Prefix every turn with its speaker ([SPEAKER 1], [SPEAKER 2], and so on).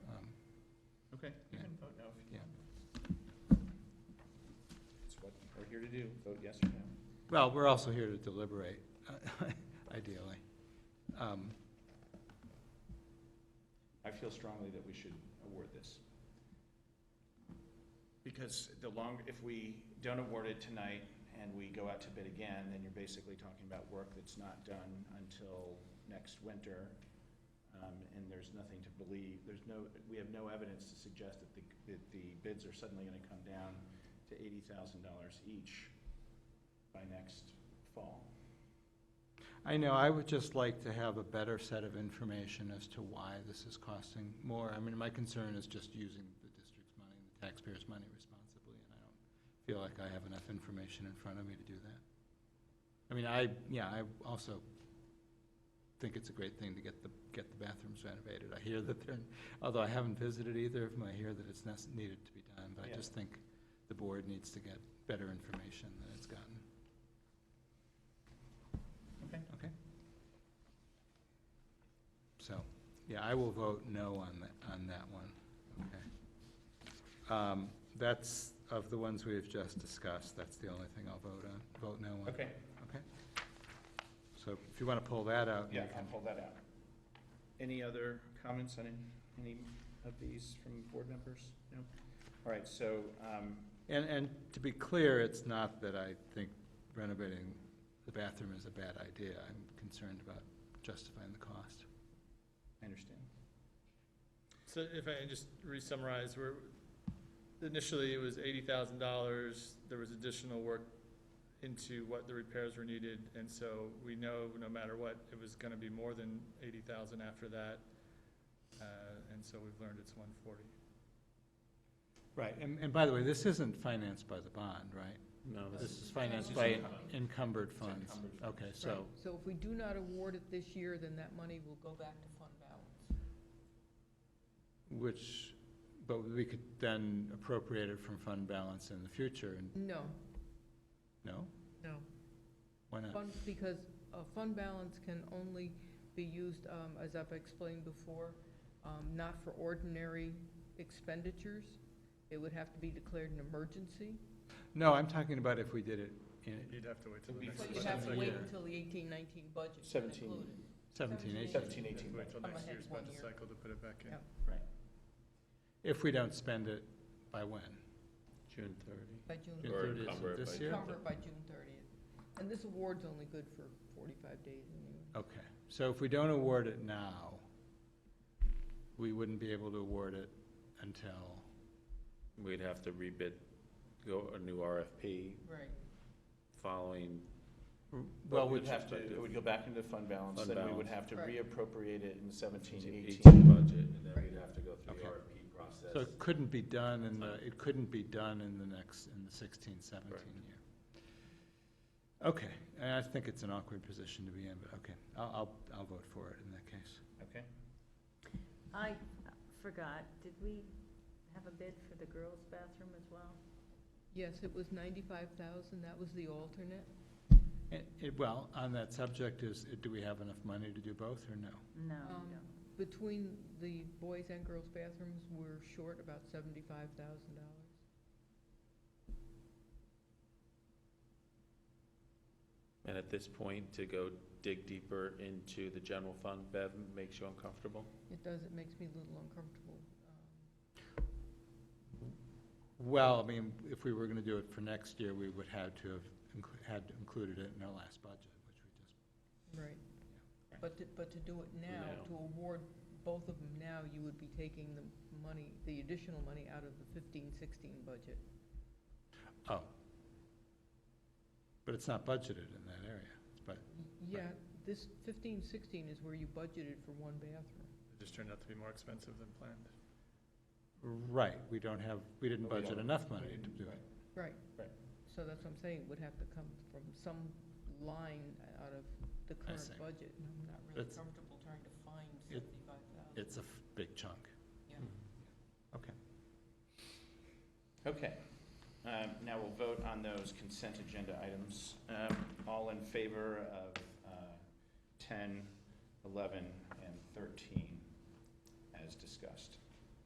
[SPEAKER 1] Um,
[SPEAKER 2] Okay, you
[SPEAKER 1] Yeah.
[SPEAKER 2] can vote no if you
[SPEAKER 1] Yeah.
[SPEAKER 2] want. It's what we're here to do, vote yes or no.
[SPEAKER 1] Well, we're also here to deliberate, ideally. Um,
[SPEAKER 2] I feel strongly that we should award this. Because the longer, if we don't award it tonight and we go out to bid again, then you're basically talking about work that's not done until next winter. Um, and there's nothing to believe, there's no, we have no evidence to suggest that the, that the bids are suddenly gonna come down to eighty thousand dollars each by next fall.
[SPEAKER 1] I know, I would just like to have a better set of information as to why this is costing more. I mean, my concern is just using the district's money, and the taxpayers' money responsibly, and I don't feel like I have enough information in front of me to do that. I mean, I, yeah, I also think it's a great thing to get the, get the bathrooms renovated. I hear that they're, although I haven't visited either of them, I hear that it's nec- needed to be done, but I
[SPEAKER 2] Yeah.
[SPEAKER 1] just think the board needs to get better information than it's gotten.
[SPEAKER 2] Okay.
[SPEAKER 1] Okay. So, yeah, I will vote no on that, on that one, okay. Um, That's, of the ones we have just discussed, that's the only thing I'll vote on, vote no on.
[SPEAKER 2] Okay,
[SPEAKER 1] Okay. So if you want to pull that out. we
[SPEAKER 2] yeah, I'll
[SPEAKER 1] can-
[SPEAKER 2] pull that out. Any other comments on any- any of these from board members? No? All right, so, um,
[SPEAKER 1] And, and to be clear, it's not that I think renovating the bathroom is a bad idea. I'm concerned about justifying the cost.
[SPEAKER 2] I understand.
[SPEAKER 3] So if I can just re-summarize, we're, initially it was eighty thousand dollars, there was additional work into what the repairs were needed, and so we know, no matter what, it was gonna be more than eighty thousand after that. Uh, and so we've learned it's one forty.
[SPEAKER 1] Right, and, and by the way, this isn't financed by the bond, right?
[SPEAKER 4] No,
[SPEAKER 1] This is financed
[SPEAKER 2] It's
[SPEAKER 1] by
[SPEAKER 2] encumbered.
[SPEAKER 1] encumbered funds.
[SPEAKER 2] encumbered funds.
[SPEAKER 1] Okay, so,
[SPEAKER 5] So if we do not award it this year, then that money will go back to fund balance.
[SPEAKER 1] which, but we could then appropriate it from fund balance in the future, and,
[SPEAKER 5] No,
[SPEAKER 1] no?
[SPEAKER 5] no.
[SPEAKER 1] Why not?
[SPEAKER 5] Fund, because uh fund balance can only be used, um, as I've explained before, um, not for ordinary expenditures. It would have to be declared an emergency.
[SPEAKER 1] No, I'm talking about if we did it in
[SPEAKER 3] You'd have to wait
[SPEAKER 2] till the
[SPEAKER 3] till the
[SPEAKER 2] next
[SPEAKER 3] next.
[SPEAKER 5] So
[SPEAKER 2] But
[SPEAKER 5] you'd
[SPEAKER 2] you'd
[SPEAKER 5] have to wait
[SPEAKER 1] Yeah.
[SPEAKER 5] until the eighteen, nineteen budget is
[SPEAKER 2] Seventeen.
[SPEAKER 5] included.
[SPEAKER 1] seventeen, eighteen,
[SPEAKER 2] Seventeen, eighteen,
[SPEAKER 3] Wait till
[SPEAKER 5] I'm
[SPEAKER 3] next
[SPEAKER 5] ahead
[SPEAKER 3] year's
[SPEAKER 5] one
[SPEAKER 3] budget
[SPEAKER 5] year.
[SPEAKER 3] cycle to put it back in.
[SPEAKER 5] Yeah.
[SPEAKER 1] if we don't spend it by when?
[SPEAKER 4] June thirty.
[SPEAKER 5] By June
[SPEAKER 1] June
[SPEAKER 4] Or
[SPEAKER 1] 30th
[SPEAKER 4] encumber
[SPEAKER 1] of
[SPEAKER 4] it
[SPEAKER 1] this
[SPEAKER 4] by-
[SPEAKER 1] year?
[SPEAKER 5] Cover it by June thirtieth. And this award's only good for forty-five days anyway.
[SPEAKER 1] Okay, so if we don't award it now, we wouldn't be able to award it until,
[SPEAKER 4] We'd have to rebid, go a new RFP
[SPEAKER 5] Right.
[SPEAKER 4] following,
[SPEAKER 1] well,
[SPEAKER 2] We'd
[SPEAKER 1] which,
[SPEAKER 2] have to, it would go back into fund balance,
[SPEAKER 4] Fund
[SPEAKER 2] then we would have
[SPEAKER 4] balance.
[SPEAKER 2] to
[SPEAKER 5] Right.
[SPEAKER 2] reappropriate it in seventeen,
[SPEAKER 4] eighteen
[SPEAKER 2] eighteen.
[SPEAKER 4] budget, and then
[SPEAKER 5] Right.
[SPEAKER 4] we'd have to go through the
[SPEAKER 1] Okay.
[SPEAKER 4] RFP
[SPEAKER 1] so
[SPEAKER 4] process.
[SPEAKER 1] it couldn't be done in the, it couldn't be done in the next, in the sixteen,
[SPEAKER 4] Correct.
[SPEAKER 1] seventeen year. Okay, and I think it's an awkward position to be in, but okay, I'll, I'll, I'll vote for it in that case.
[SPEAKER 2] Okay,
[SPEAKER 6] I forgot, did we have a bid for the girls' bathroom as well?
[SPEAKER 5] Yes, it was ninety-five thousand, that was the alternate.
[SPEAKER 1] And, it- well, on that subject is, do we have enough money to do both or no?
[SPEAKER 6] No,
[SPEAKER 5] Um,
[SPEAKER 6] we don't.
[SPEAKER 5] Between the boys and girls bathrooms, we're short about seventy-five thousand dollars.
[SPEAKER 4] And at this point, to go dig deeper into the general fund, Bev, makes you uncomfortable?
[SPEAKER 5] It does, it makes me a little uncomfortable. um,
[SPEAKER 1] Well, I mean, if we were gonna do it for next year, we would have to have, inclu- had included it in our last budget, which we just
[SPEAKER 5] Right. But to, but to do it
[SPEAKER 4] Now.
[SPEAKER 5] now, to award both of them now, you would be taking the money, the additional money out of the fifteen, sixteen budget.
[SPEAKER 1] Oh. But it's not budgeted in that area, but,
[SPEAKER 5] Yeah, this fifteen, sixteen is where you budgeted for one bathroom.
[SPEAKER 3] It just turned out to be more expensive than planned.
[SPEAKER 1] right, we don't have, we didn't
[SPEAKER 2] But we
[SPEAKER 1] budget
[SPEAKER 2] don't-
[SPEAKER 1] enough money
[SPEAKER 2] we
[SPEAKER 1] to
[SPEAKER 2] didn't,
[SPEAKER 1] do
[SPEAKER 2] right.
[SPEAKER 1] it.
[SPEAKER 5] Right.
[SPEAKER 2] Right.
[SPEAKER 5] So that's what I'm saying, it would have to come from some line out of the current
[SPEAKER 1] see.
[SPEAKER 5] budget, and I'm not really
[SPEAKER 1] That's-
[SPEAKER 5] comfortable trying to find
[SPEAKER 1] It-
[SPEAKER 5] seventy-five thousand.
[SPEAKER 1] It's a f- big chunk.
[SPEAKER 2] okay. Um, now we'll vote on those consent agenda items. Um, all in favor of, uh, ten, eleven, and thirteen as discussed?